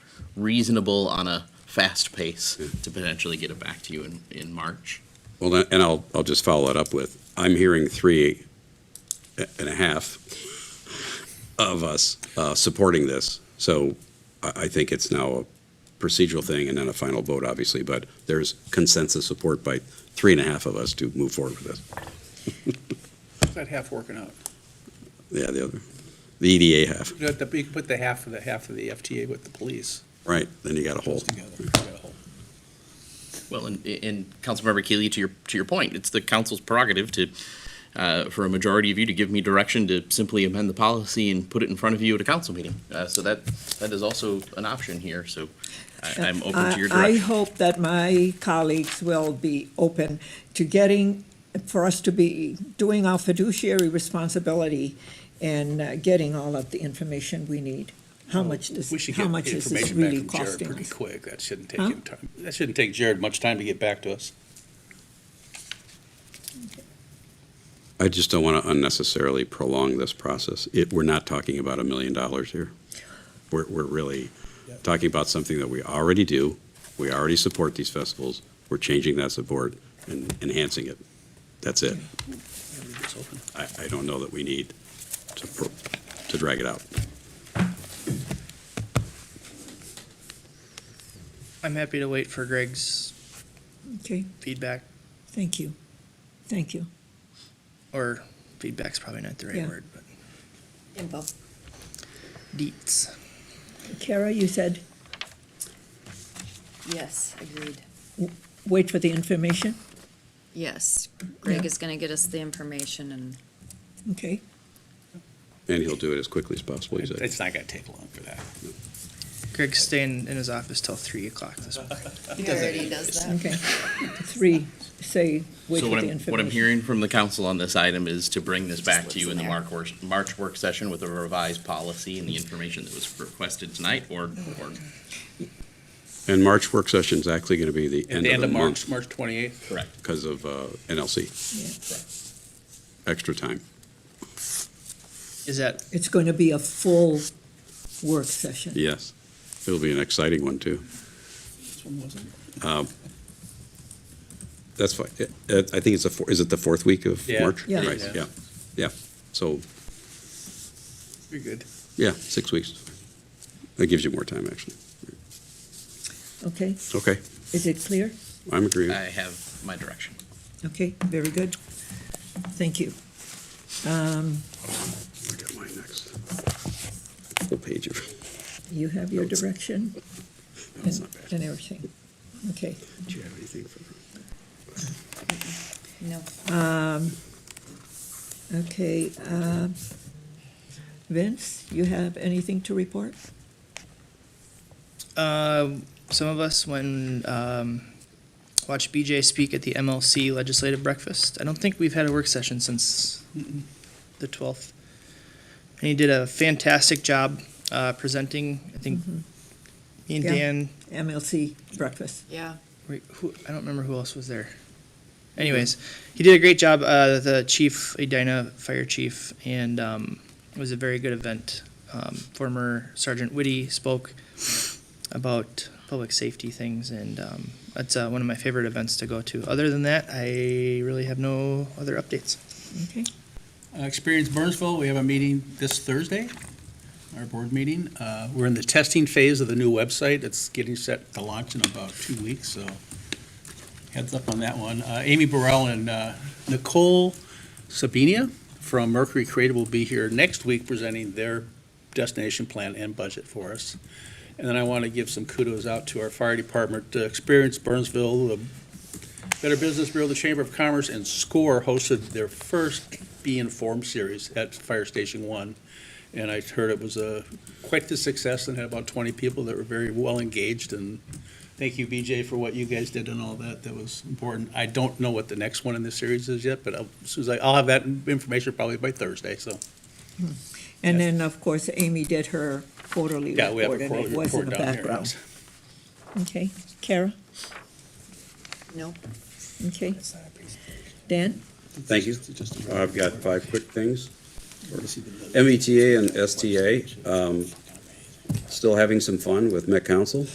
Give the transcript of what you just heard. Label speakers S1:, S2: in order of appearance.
S1: reasonable on a fast pace to potentially get it back to you in, in March.
S2: Well, then- and I'll, I'll just follow that up with, I'm hearing three a- and a half of us uh, supporting this. So I, I think it's now a procedural thing and then a final vote, obviously, but there's consensus support by three and a half of us to move forward with this.
S3: That half working out.
S2: Yeah, the other, the E EDA half,
S3: You have to- you can put the half of the, half of the FTA with the police.
S2: right, then you got a whole.
S3: Together. You got a whole-
S1: Well, and, and Councilmember Keely, to your, to your point, it's the council's prerogative to, uh, for a majority of you to give me direction to simply amend the policy and put it in front of you at a council meeting. Uh, so that, that is also an option here, so I, I'm open to your
S4: Uh, I- I
S1: direction.
S4: hope that my colleagues will be open to getting, for us to be doing our fiduciary responsibility and uh, getting all of the information we need. How much
S3: We
S4: this,
S3: should
S4: how
S3: get
S4: much is this
S3: information
S4: really
S3: back from Jared
S4: costing
S3: pretty
S4: us?
S3: quick. That shouldn't take
S4: Huh?
S3: him time. That shouldn't take Jared much time to get back to us.
S2: I just don't want to unnecessarily prolong this process. It, we're not talking about a million dollars here. We're, we're really talking about something that we already do. We already support these festivals. We're changing that support and enhancing it. That's it.
S3: It's open.
S2: I, I don't know that we need to, pro- to drag it out.
S5: I'm happy to wait for Greg's
S4: Okay,
S5: feedback,
S4: thank you, thank you.
S5: or feedback's probably not the right
S4: Yeah.
S5: word, but deets.
S4: Kara, you said,
S6: Yes, agreed.
S4: wait for the information,
S6: Yes, Greg
S4: Yeah.
S6: is gonna get us the information and
S4: okay?
S2: And he'll do it as quickly as possible. he said.
S3: It's not gonna take long for that.
S5: Greg's staying in his office till three o'clock this morning.
S6: he already does that.
S4: Okay. Three, say, wait
S1: So
S4: for
S1: what I'm, what
S4: the
S1: I'm
S4: information.
S1: hearing from the council on this item is to bring this back to you in the
S6: Just
S1: March
S6: what's
S1: work, March work session with a revised policy and the information that was requested tonight or, or
S2: And March work session is actually going to be the
S3: At
S2: end
S3: the
S2: of the
S3: March,
S2: month
S3: March twenty-eighth.
S1: correct.
S2: because of uh, NLC,
S4: Yeah.
S2: extra time.
S5: Is that,
S4: It's going to be a full work session.
S2: Yes. It'll be an exciting one, too.
S3: This one wasn't.
S2: That's fine. It- it- I think it's the, four- is it the fourth week of
S3: Yeah.
S2: March?
S4: Yeah.
S2: Right,
S3: Yeah.
S2: yeah, yeah. So,
S3: You're good.
S2: yeah, six weeks. That gives you more time, actually.
S4: Okay,
S2: Okay,
S4: is it clear?
S2: I'm agreeing.
S1: I have my direction.
S4: Okay, very good. Thank you.
S2: I got mine next. Full page of,
S4: You have your direction
S2: no, it's
S4: and
S2: not
S4: and
S2: bad.
S4: everything. Okay.
S2: Do you have anything for?
S6: No,
S4: Okay, um, Vince, you have anything to report?
S5: um, some of us when, um, watched BJ speak at the MLC legislative breakfast. I don't think we've had a work session since the twelfth. And he did a fantastic job, uh, presenting, I think, me and
S4: Yeah.
S5: Dan,
S4: MLC breakfast.
S6: yeah,
S5: Wait, who, I don't remember who else was there. Anyways, he did a great job. Uh, the chief, Edina Fire Chief, and um, it was a very good event. Um, former Sergeant Whitty spoke about public safety things, and um, that's uh, one of my favorite events to go to. Other than that, I really have no other updates.
S4: Okay,
S3: Uh, Experience Burnsville, we have a meeting this Thursday, our board meeting. Uh, We're in the testing phase of the new website. It's getting set to launch in about two weeks, so heads up on that one. Uh, Amy Burrell and uh, Nicole Sabinia from Mercury Creative will be here next week presenting their destination plan and budget for us. And then I want to give some kudos out to our fire department, uh, Experience Burnsville, the Better Business Bureau, the Chamber of Commerce, and SCORE hosted their first be Informed series at Fire Station One. And I heard it was a, quite the success and had about twenty people that were very well engaged and thank you, BJ, for what you guys did and all that. That was important. I don't know what the next one in this series is yet, but I'll- as soon as I, I'll have that information probably by Thursday, so.
S4: and then, of course, Amy did her quarterly
S3: Yeah, we have a
S4: report, and
S3: quarterly
S4: it was in
S3: report
S4: the
S3: down here.
S4: background. Okay, Kara,
S6: no.
S4: okay, Dan?
S2: Thank you. Uh, I've E got five quick things. MBTA and STA, um, Still having some fun with Met Council?